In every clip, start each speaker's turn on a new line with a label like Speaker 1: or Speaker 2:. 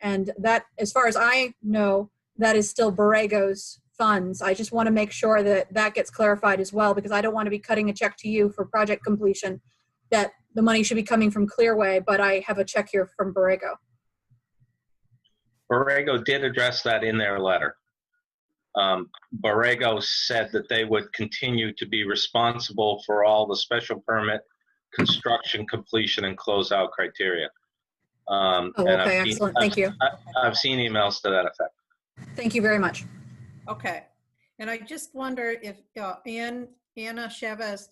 Speaker 1: And that, as far as I know, that is still Borrego's funds. I just want to make sure that that gets clarified as well, because I don't want to be cutting a check to you for project completion, that the money should be coming from Clearway, but I have a check here from Borrego.
Speaker 2: Borrego did address that in their letter. Um, Borrego said that they would continue to be responsible for all the special permit, construction completion, and closeout criteria. Um,
Speaker 1: Oh,
Speaker 2: and I've
Speaker 1: okay,
Speaker 2: seen-
Speaker 1: excellent. Thank you.
Speaker 2: I've seen emails to that effect.
Speaker 1: Thank you very much.
Speaker 3: Okay, and I just wonder if, uh, Ann, Anna Chavez,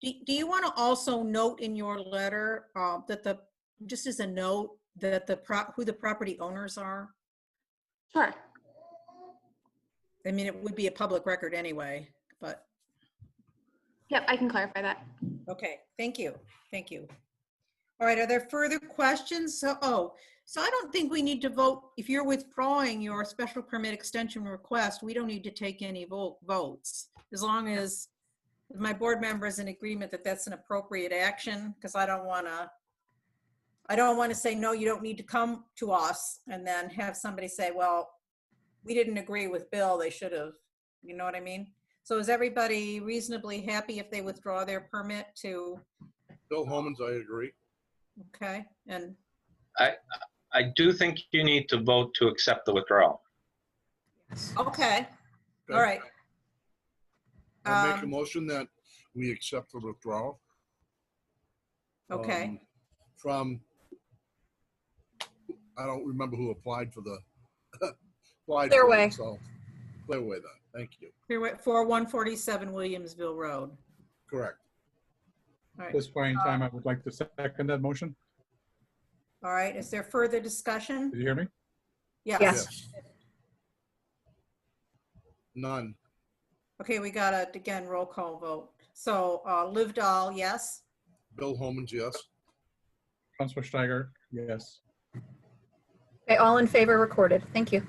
Speaker 3: do do you want to also note in your letter uh, that the, just as a note, that the, prop who the property owners are?
Speaker 4: Sure.
Speaker 3: I mean, it would be a public record anyway, but,
Speaker 4: Yep, I can clarify that.
Speaker 3: okay, thank you, thank you. All right, are there further questions? So, oh, so I don't think we need to vote, if you're withdrawing your special permit extension request, we don't need to take any vo- votes, as long as my board member is in agreement that that's an appropriate action, because I don't want to, I don't want to say, no, you don't need to come to us, and then have somebody say, well, we didn't agree with Bill, they should have, you know what I mean? So is everybody reasonably happy if they withdraw their permit to,
Speaker 5: Bill Holman's, I agree.
Speaker 3: okay, and
Speaker 2: I do think you need to vote to accept the withdrawal.
Speaker 3: Okay, all
Speaker 5: Okay.
Speaker 3: right.
Speaker 5: I make a
Speaker 3: Um,
Speaker 5: motion that we accept the withdrawal.
Speaker 3: Okay,
Speaker 5: um, From, I don't remember who applied for the. applied for it,
Speaker 1: Clearway.
Speaker 5: so- Clearway, then, thank you.
Speaker 3: four one forty-seven Williamsville Road.
Speaker 5: Correct.
Speaker 3: All
Speaker 6: At
Speaker 3: right,
Speaker 6: this point in time, I would like to second that motion.
Speaker 3: all right, is there further discussion?
Speaker 6: Did you hear me?
Speaker 3: Yes,
Speaker 1: Yes.
Speaker 5: None.
Speaker 3: okay, we got a, again, roll call vote. So, uh, Live Dahl, yes?
Speaker 5: Bill Holman's, yes.
Speaker 6: Councilor Steiger, yes.
Speaker 1: Okay, all in favor recorded. Thank you.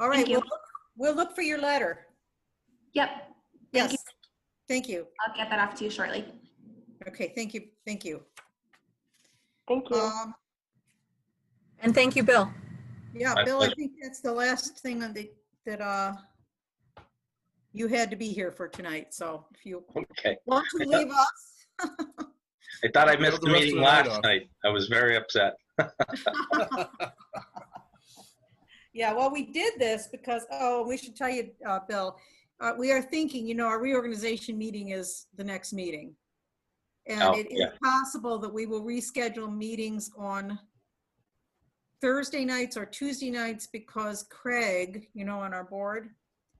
Speaker 3: All right,
Speaker 4: Thank you.
Speaker 3: we'll, look- we'll look for your letter.
Speaker 4: Yep. Thank
Speaker 3: Yes,
Speaker 4: you.
Speaker 3: thank you.
Speaker 4: I'll get that off to you shortly.
Speaker 3: Okay, thank you, thank you.
Speaker 4: Thank
Speaker 3: Um,
Speaker 1: And thank you, Bill.
Speaker 3: Yeah,
Speaker 2: My
Speaker 3: Bill, I
Speaker 2: pleasure.
Speaker 3: think that's the last thing on the, that, uh, you had to be here for tonight, so if you
Speaker 2: Okay.
Speaker 3: want to leave us,
Speaker 2: I thought I
Speaker 5: Yeah,
Speaker 2: missed the
Speaker 5: the rest of
Speaker 2: meeting
Speaker 5: the night
Speaker 2: last
Speaker 5: off.
Speaker 2: night. I was very upset.
Speaker 3: Yeah, well, we did this because, oh, we should tell you, uh, Bill, uh, we are thinking, you know, our reorganization meeting is the next meeting.
Speaker 2: Oh,
Speaker 3: And it is
Speaker 2: yeah.
Speaker 3: possible that we will reschedule meetings on Thursday nights or Tuesday nights because Craig, you know, on our board,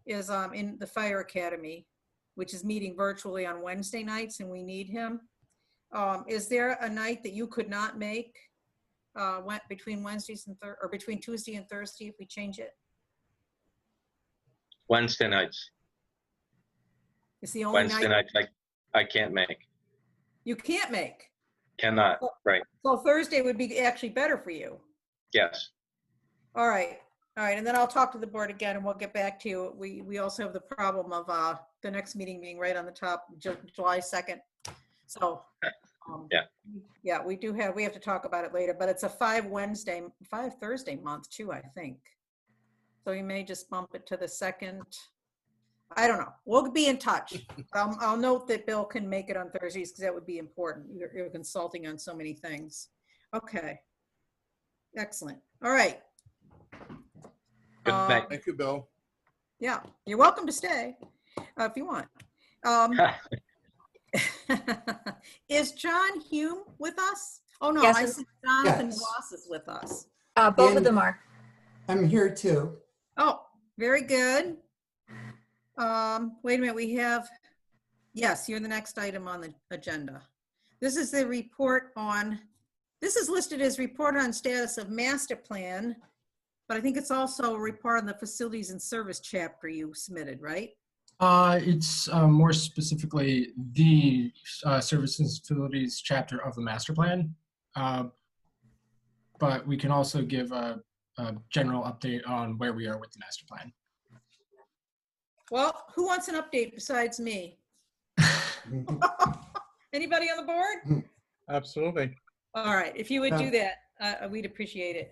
Speaker 3: is, um, in the Fire Academy, which is meeting virtually on Wednesday nights and we need him. Um, is there a night that you could not make? uh, went between Wednesdays and Thur, or between Tuesday and Thursday if we change it?
Speaker 2: Wednesday nights.
Speaker 3: It's the only
Speaker 2: Wednesday
Speaker 3: night
Speaker 2: nights I, I can't make.
Speaker 3: you can't make.
Speaker 2: Cannot. Right.
Speaker 3: So Thursday would be actually better for you.
Speaker 2: Yes.
Speaker 3: All right, all right, and then I'll talk to the board again and we'll get back to you. We, we also have the problem of, uh, the next meeting being right on the top, Ju- July 2nd. So. um,
Speaker 2: Yeah.
Speaker 3: Yeah, we do have, we have to talk about it later, but it's a five Wednesday, five Thursday month too, I think. So we may just bump it to the second. I don't know. We'll be in touch. Um, I'll note that Bill can make it on Thursdays because that would be important. You're, you're consulting on so many things. Okay. Excellent. All right.
Speaker 2: Good
Speaker 1: Uh,
Speaker 3: Um,
Speaker 2: night.
Speaker 5: Thank you, Bill.
Speaker 3: Yeah, you're welcome to stay uh, if you want. Um, is John Hume with us? Oh no,
Speaker 1: Yes,
Speaker 3: I
Speaker 1: and-
Speaker 3: see Jonathan
Speaker 7: Yes.
Speaker 3: Ross is with us.
Speaker 1: Uh, both of
Speaker 7: And-
Speaker 1: them are.
Speaker 7: I'm here too.
Speaker 3: Oh, very good. Um, wait a minute, we have, yes, you're the next item on the agenda. This is the report on, this is listed as report on status of master plan, but I think it's also a report on the facilities and service chapter you submitted, right?
Speaker 7: Uh, it's uh, more specifically the uh, services facilities chapter of the master plan. Uh, but we can also give a, a general update on where we are with the master plan.
Speaker 3: Well, who wants an update besides me? Anybody on the board?
Speaker 6: Absolutely.
Speaker 3: All right, if you would
Speaker 7: Yeah.
Speaker 3: do that, uh, we'd appreciate it.